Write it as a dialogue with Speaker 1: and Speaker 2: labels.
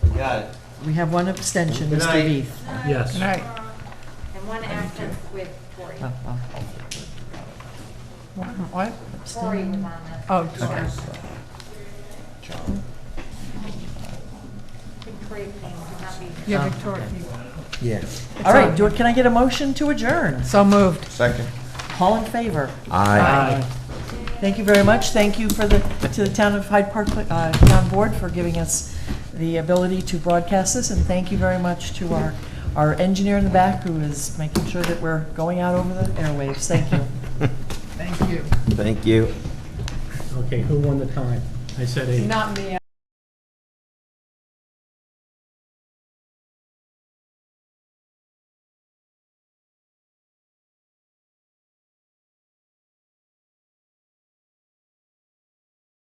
Speaker 1: Got it.
Speaker 2: We have one abstention,
Speaker 1: Good night.
Speaker 2: Mr. Heath.
Speaker 3: Yes.
Speaker 4: All right.
Speaker 5: And one active with Cory.
Speaker 2: Oh, oh,
Speaker 4: What?
Speaker 5: Cory was
Speaker 2: abstain.
Speaker 5: on that.
Speaker 4: Oh,
Speaker 5: I
Speaker 4: sorry.
Speaker 5: think Cory came, could not be.
Speaker 4: Yeah, Victoria.
Speaker 6: Yes.
Speaker 2: All right, do, can I get a motion to adjourn?
Speaker 4: So moved.
Speaker 6: Second.
Speaker 2: All in favor?
Speaker 6: Aye.
Speaker 2: Thank you very much. Thank you for the, to the Town of Hyde Park, uh, Town Board for giving us the ability to broadcast this, and thank you very much to our, our engineer in the back who is making sure that we're going out over the airwaves. Thank you.
Speaker 4: Thank you.
Speaker 6: Thank you.
Speaker 3: Okay, who won the time? I said eight.
Speaker 4: Not me.